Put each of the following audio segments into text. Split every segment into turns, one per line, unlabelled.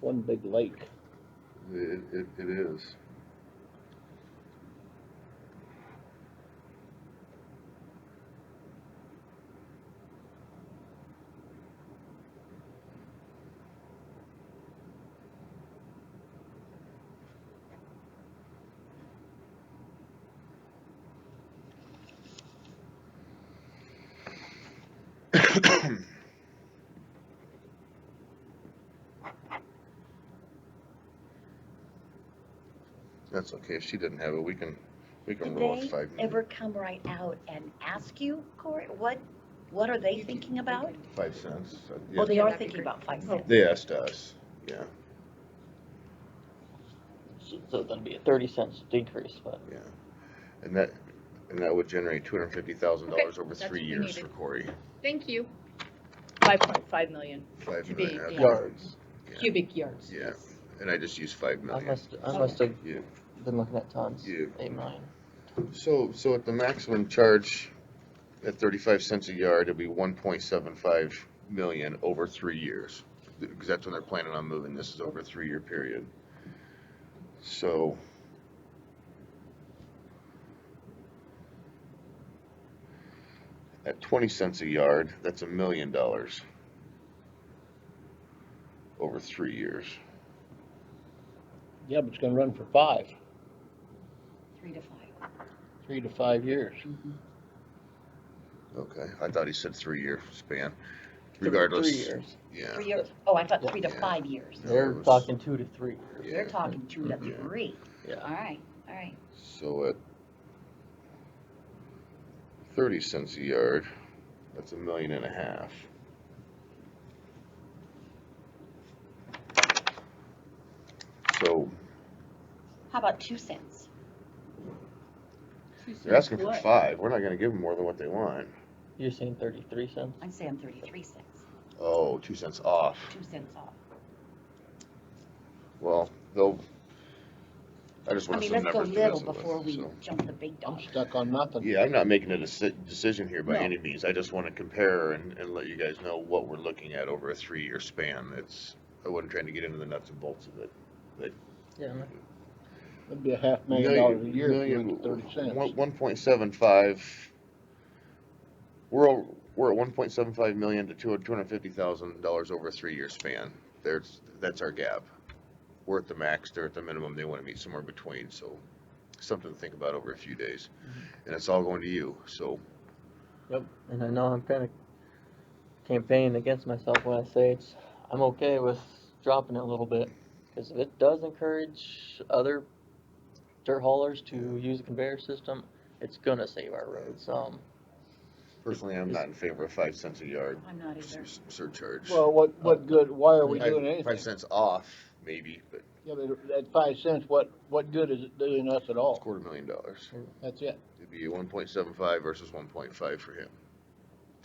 one big lake.
It, it, it is. That's okay, if she didn't have it, we can, we can
Did
roll it
they
five minutes.
ever come right out and ask you, Corey, what, what are they thinking about?
Five cents. uh, yeah.
Well, they are
That'd be
thinking
great.
about five cents.
They asked us, yeah,
So so that'd be a thirty cents decrease, but
yeah. And that, and that would generate two hundred and fifty thousand dollars
Okay,
over
that's
three
what we
years for
needed.
Corey.
Thank you. Five point five million
Five
To
million
be,
out
yeah.
of
Yards.
Yeah.
cubic yards.
Yeah. And I just used five
I
million.
must, I must have
Yeah.
been looking at tons,
Yeah.
eight million.
So, so at the maximum charge at thirty-five cents a yard, it'd be one point seven five million over three years. Because that's when they're planning on moving, this is over a three-year period. So. At twenty cents a yard, that's a million dollars. Over three years.
Yeah, but it's gonna run for five,
Three to five.
three to five years.
Okay. I thought he said three-year span,
Three-
regardless.
Three years.
Yeah.
Three years, oh, I thought three to
Yeah.
five years.
No,
They're
it was-
talking two to three years.
They're
Yeah.
talking two to
Yeah.
three.
Yeah.
All right, all right.
So at thirty cents a yard, that's a million and a half. So
How about two cents?
they're asking for five, we're not gonna give them more than what they want.
You're saying thirty-three cents?
I'm saying thirty-three cents,
Oh, two cents off,
two cents off.
well, they'll, I just
I
want
mean,
some
let's go
numbers to
little
visit
before
with,
we
so. Oh.
jump the big
I'm
dog.
stuck on nothing.
Yeah, I'm not making a deci- decision here by
No.
any means, I just wanna compare and, and let you guys know what we're looking at over a three-year span, it's, I wasn't trying to get into the nuts and bolts of it.
Yeah, man. That'd be a half million dollars a year if you went to thirty cents.
One point seven five. We're, o- we're at one point seven five million to two, two hundred fifty thousand dollars over a three-year span. There's, that's our gap. We're at the max, they're at the minimum, they wanna meet somewhere between, so something to think about over a few days. And it's all going to you, so,
And I know I'm kinda campaigning against myself when I say it's, I'm okay with dropping it a little bit. Cause if it does encourage other dirt haulers to use the conveyor system, it's gonna save our roads, um.
personally, I'm not in favor of five cents a yard
I'm not
s-
either.
s- surcharge.
Well, what, what good, why are we
Five-
doing
Five
anything?
cents off, maybe, but
Yeah, but at five cents, what, what good is it doing us at
it's a
all?
quarter million dollars.
That's it.
It'd be one point seven five versus one point five for him,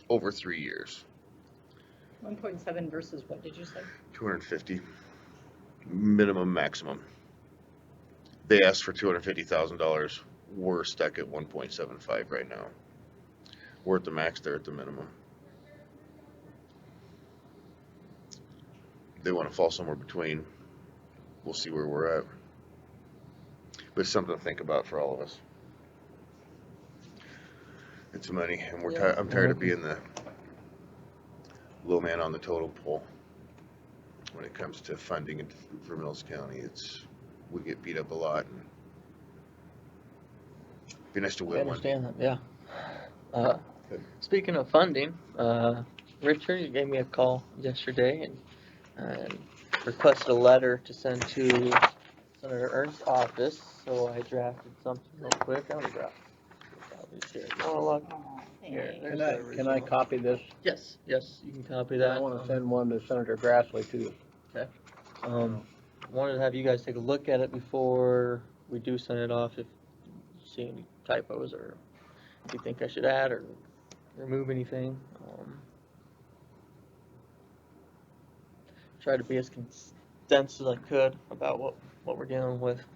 over three years.
One point seven versus what did you say?
Two hundred and fifty, minimum, maximum. They asked for two hundred and fifty thousand dollars, we're stuck at one point seven five right now. We're at the max, they're at the minimum. They wanna fall somewhere between, we'll see where we're at. But it's something to think about for all of us. It's money, and we're
Yeah.
tired, I'm tired of being the low man on the total pole when it comes to funding it for Mills County, it's, we get beat up a lot. and Be nice to
I
win one.
understand that, yeah. Uh,
Good.
speaking of funding, uh, Richard, you gave me a call yesterday and, and requested a letter to send to Senator Ernst's office, so I drafted something real quick, I'm gonna draft. Oh, look,
Aw,
here,
thanks.
there's
Can I,
the
can I
original.
copy this?
Yes, yes, you can copy that.
I wanna
um,
send one to Senator Grassley too.
Um, wanted to have you guys take a look at it before we do send it off, if you see any typos or if you think I should add or remove anything, um. Try to be as cons- dense as I could about what, what we're dealing with.